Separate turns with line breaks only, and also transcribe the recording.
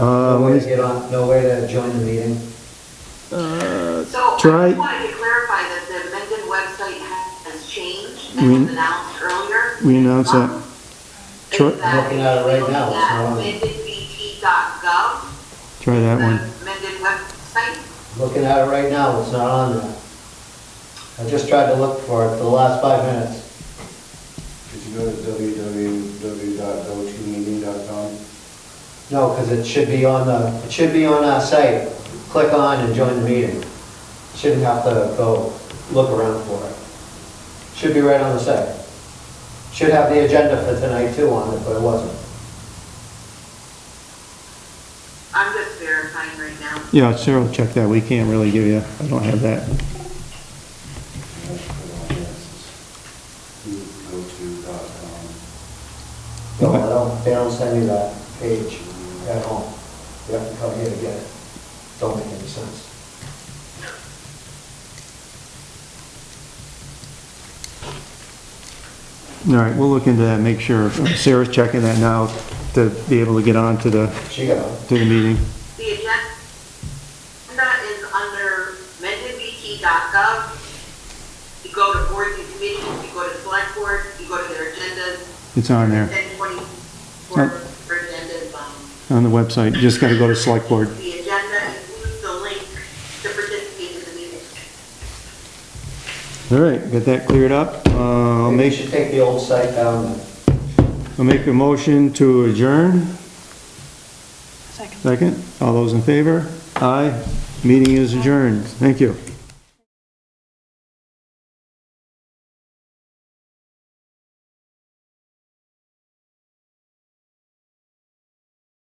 Uh,
No
let
way
me-
to get on, no way to join the meeting.
So I
Try-
just wanted to clarify that the amended website has changed,
We-
and was announced earlier.
We announced that.
Um,
Try-
is that
Looking at it right now, it's not on.
amendedbt.gov,
Try
the
that one.
amended website.
Looking at it right now, it's not on there. I just tried to look for it for the last five minutes.
Did you go to www.go2meeting.com?
No, because it should be on the, it should be on our site. Click on and join the meeting. Shouldn't have to go look around for it. Should be right on the site. Should have the agenda for tonight too on it, but it wasn't.
I'm just verifying right now.
Yeah, Cheryl, check that. We can't really give you, I don't have that.
Go2.com.
No,
Okay.
I don't, they don't send you that page at home. You have to come here to get it. Don't make any sense.
All right, we'll look into that, make sure. Sarah's checking that now to be able to get on to the,
She got it.
to the meeting.
The agenda is under amendedbt.gov. You go to boards and committees, you go to select board, you go to their agendas,
It's on there,
1024
Oh.
for agendas, um,
on the website. Just gotta go to select board.
The agenda includes the link to participate in the meeting.
All right, got that cleared up. Uh, I'll
Maybe you
make,
should take the old site down and
I'll make a motion to adjourn.
Second.
Second, all those in favor? Aye, meeting is adjourned. Thank you.